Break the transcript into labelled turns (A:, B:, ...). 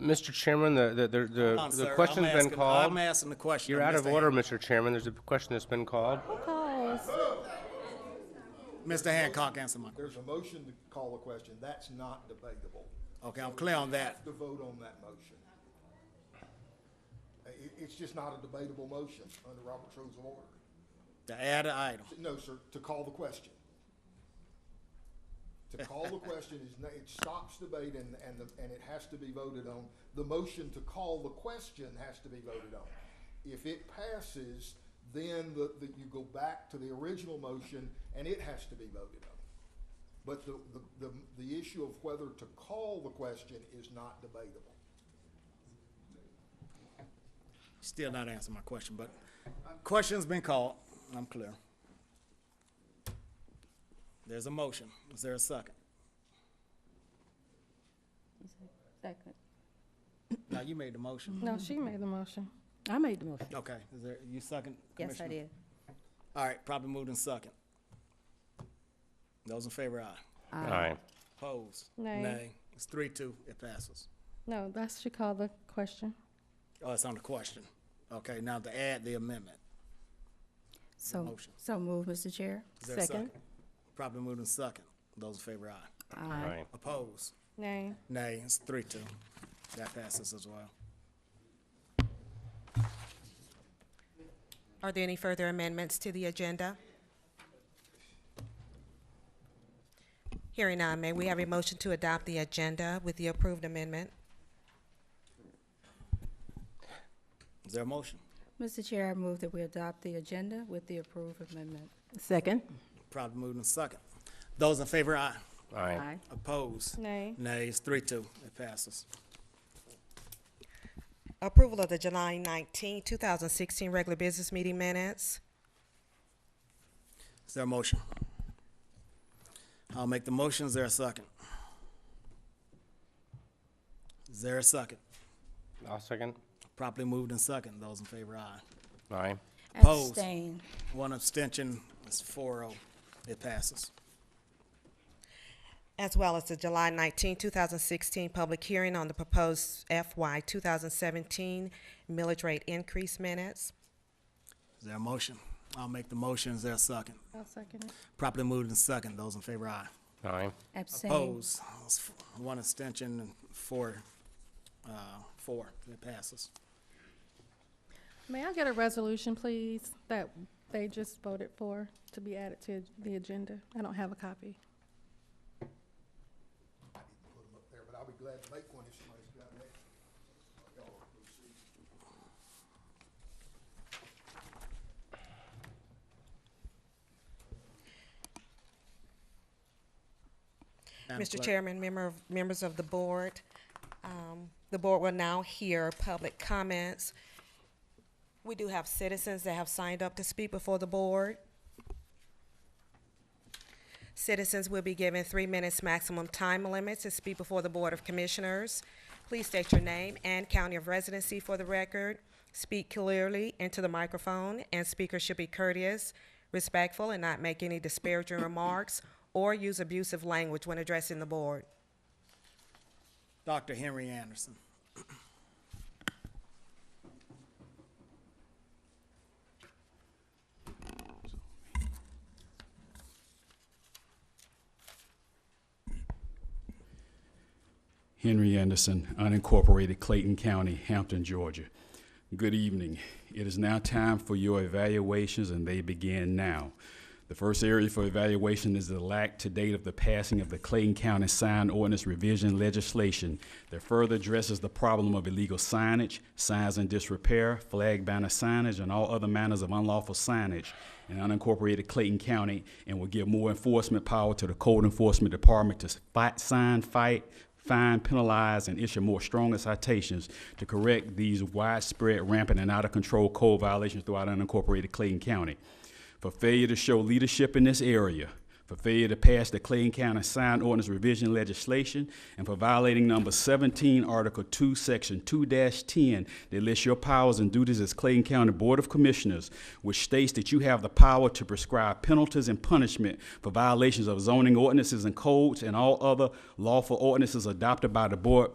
A: Mr. Chairman, the, the, the-
B: Hold on,
A: the,
B: sir.
A: the
B: I'm
A: question's been
B: asking-
A: called.
B: I'm asking the question.
A: You're
B: of
A: out of
B: Mr.
A: order, Mr. Chairman. There's a question that's been called.
C: Calls.
B: Han- Mr. Hancock, answer my question.
D: There's a motion to call a question. That's not debatable.
B: Okay, I'm clear on that.
D: To vote on that motion. I- i- it's just not a debatable motion under Robert's Rules of Order.
B: To add an item.
D: No, sir, to call the question. To call the question is, no- it stops debate and, and, the- and it has to be voted on. The motion to call the question has to be voted on. If it passes, then the, the, you go back to the original motion and it has to be voted on. But the, the, the, the issue of whether to call the question is not debatable.
B: Still not answering my question, but question's been called. I'm clear. There's a motion. Is there a second?
C: Second.
B: Now, you made the motion.
E: No, she made the motion.
C: I made the motion.
B: Okay, is there, you second?
C: Yes, I
B: Commissioner?
C: did.
B: All right, probably moved in second. Those in favor, aye.
A: Aye.
B: Opposed?
E: Nay.
B: It's three, two, it passes.
E: No, that's, she called the question.
B: Oh, it's on the question. Okay, now to add the amendment.
C: So,
B: motion.
C: so move, Mr. Chair.
B: Is there a second? Probably moved in second. Those in favor, aye.
A: Aye.
B: Opposed?
E: Nay.
B: Nay, it's three, two. That passes as well.
F: Are there any further amendments to the agenda? Hearing none, may we have a motion to adopt the agenda with the approved amendment?
B: Is there a motion?
C: Mr. Chair, I move that we adopt the agenda with the approved amendment.
G: Second.
B: Probably moved in second. Those in favor, aye.
A: Aye.
B: Opposed?
E: Nay.
B: Nay, it's three, two. It passes.
F: Approval of the July 19, 2016 regular business meeting minutes.
B: Is there a motion? I'll make the motion. Is there a second? Is there a second?
A: I'll second.
B: Properly moved in second. Those in favor, aye.
A: Aye.
B: Opposed.
C: Abstain.
B: One abstention is four oh. It passes.
F: as well as the July 19, 2016 public hearing on the proposed FY 2017 millage rate increase minutes.
B: Is there a motion? I'll make the motion. Is there a second?
E: I'll second it.
B: Properly moved in second. Those in favor, aye.
A: Aye.
C: Abstain.
B: Opposed. It's f- One abstention and four, uh, four. It passes.
E: May I get a resolution, please, that they just voted for to be added to the agenda? I don't have a copy.
D: I didn't put them up there, but I'll be glad to make one if somebody's got an extra. Y'all are proceeding.
B: Madam
F: Mr.
B: Clerk.
F: Chairman, member of, members of the board, um, the board will now hear public comments. We do have citizens that have signed up to speak before the board. Citizens will be given three minutes maximum time limit to speak before the Board of Commissioners. Please state your name and county of residency for the record. Speak clearly into the microphone, and speakers should be courteous, respectful, and not make any disparaging remarks or use abusive language when addressing the board.
B: Dr. Henry Anderson.
H: Henry Anderson, unincorporated Clayton County, Hampton, Georgia. Good evening. It is now time for your evaluations, and they begin now. The first area for evaluation is the lack to date of the passing of the Clayton County Sign Ordinance Revision legislation that further addresses the problem of illegal signage, signs in disrepair, flag banner signage, and all other manners of unlawful signage in unincorporated Clayton County, and will give more enforcement power to the Code Enforcement Department to fight, sign, fight, fine, penalize, and issue more stronger citations to correct these widespread, rampant, and out of control code violations throughout unincorporated Clayton County. For failure to show leadership in this area, for failure to pass the Clayton County Sign Ordinance Revision legislation, and for violating number 17, Article 2, Section 2-10 that lists your powers and duties as Clayton County Board of Commissioners, which states that you have the power to prescribe penalties and punishment for violations of zoning ordinances and codes and all other lawful ordinances adopted by the Board